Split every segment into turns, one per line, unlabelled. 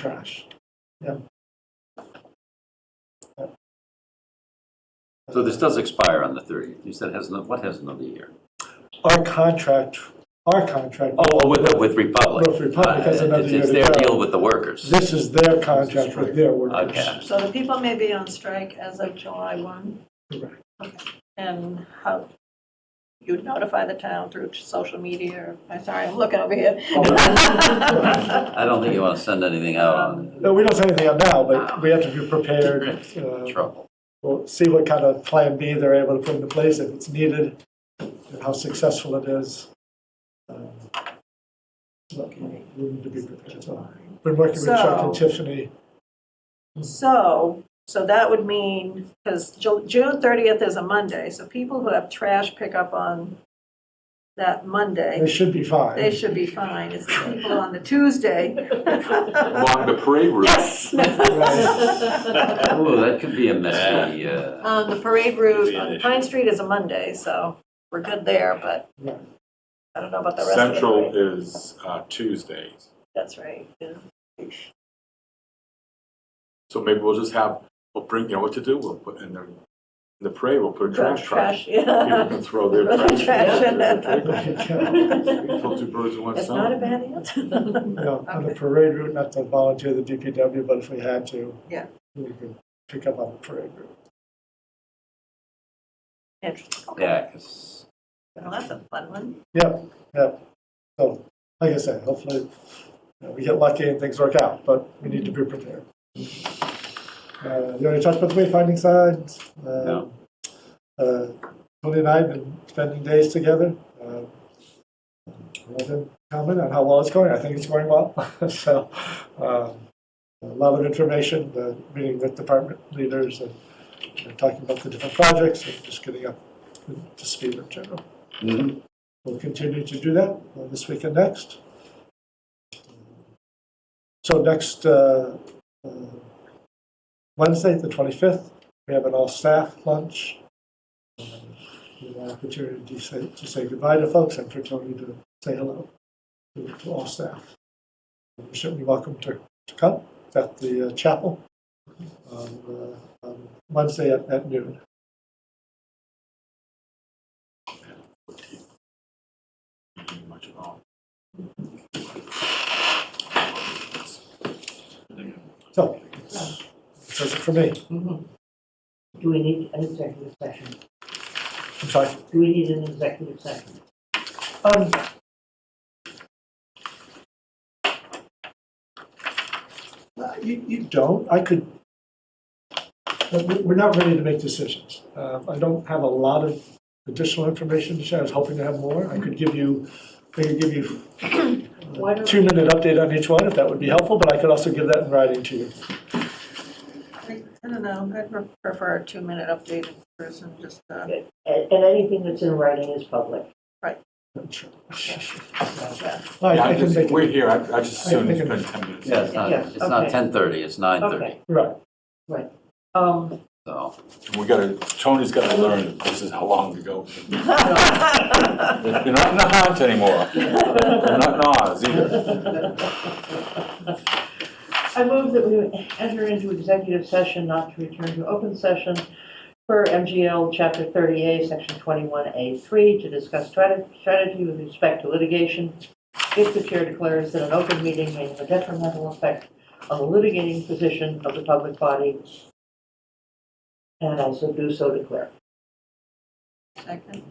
trash.
So this does expire on the 30th. You said it has, no- what has another year?
Our contract, our contract,
Oh, oh, with, with Republic.
With Republic, that's
Uh,
another
it's-
year
It's
to
their
go.
deal with the workers.
this is their contract with their workers.
Okay.
So the people may be on strike as of July 1?
Correct.
Okay. And how, you notify the town through social media, or, I'm sorry, I'm looking over here.
Oh.
I don't think you want to send anything out on
No, we don't say anything now, but we have to be prepared. uh,
trouble.
We'll see what kind of plan B they're able to put into place if it's needed, and how successful it is. Um, Look, we need to be prepared. So, Been working with Chuck and
So-
Tiffany.
So, so that would mean, because June 30th is a Monday, so people who have trash pickup on that
They
Monday,
should be
they
fine.
should be fine. It's the people on the Tuesday.
along the parade route.
Yes.
Ooh, that could be a messy, uh,
Um, the parade route on Pine Street is a Monday, so we're good there, but
Yeah.
I don't know about the rest of the
Central
parade.
is uh, Tuesdays.
That's right, yeah.
So maybe we'll just have, we'll bring, you know what to do, we'll put in the, in the parade, we'll put a trash truck.
Trash,
People
yeah.
can throw their
Throw
trash.
trash in.
Kill two birds with one
It's not a
stone.
bad answer.
No, on the parade route, not to volunteer the DPW, but if we had to.
Yeah.
We could pick up on the parade route.
Interesting, okay.
yeah, 'cause
Well, that's a fun one.
Yep, yep. So, like I said, hopefully, you know, we get lucky and things work out, but we need to be prepared. Uh, You already talked about the wayfinding signs. uh,
No.
uh, Tony and I have been spending days together. Uh, Let him comment on how well it's going. I think it's going well. So, um, a lot of information, uh, meeting with department leaders and and talking about the different projects and just getting up to speed in general.
Mhm.
We'll continue to do that uh, this week and next. So next uh, uh, Wednesday, the 25th, we have an all-staff lunch. Um, we have An opportunity to say, to say goodbye to folks and for Tony to say hello to to all staff. You're Certainly welcome to to come It's at the uh, chapel on uh, on Wednesday at at noon.
Much at all.
So, that's that's it for me.
Mhm. Do we need an executive session?
I'm sorry.
Do we need an executive session?
Um, uh, You, you don't, I could, but we- we're not ready to make decisions. Uh, I don't have a lot of additional information to share, I was hoping to have more. I could give you, I could give you
Why
a
don't-
two-minute update on each one, if that would be helpful, but I could also give that in writing to you.
I I don't know, I'd pre- prefer a two-minute update in person, just, uh,
And, and anything that's in writing is public.
yeah.
I
Yeah,
I
I
can
just,
make it,
we're here, I I just
I can
assumed it's
make
been
it-
10 minutes.
Yeah, it's not,
Yeah,
it's not
okay.
10:30, it's 9:30,
Okay,
right,
um,
so.
And We gotta, Tony's gotta learn, that this is how long to go. You're not in the hunt anymore. You're not in Oz either.
I move that we enter into executive session not to return to open session per MGL Chapter 30A, Section 21A3, to discuss strate- strategy with respect to litigation if the chair declares that an open meeting may have a detrimental effect on the litigating position of the public body, and I so do so declare.
Second,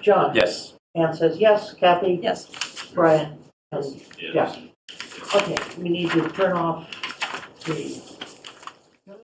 John?
Yes.
Anne says yes. Kathy?
yes.
Brian? And Jeff? Okay, we need to turn off the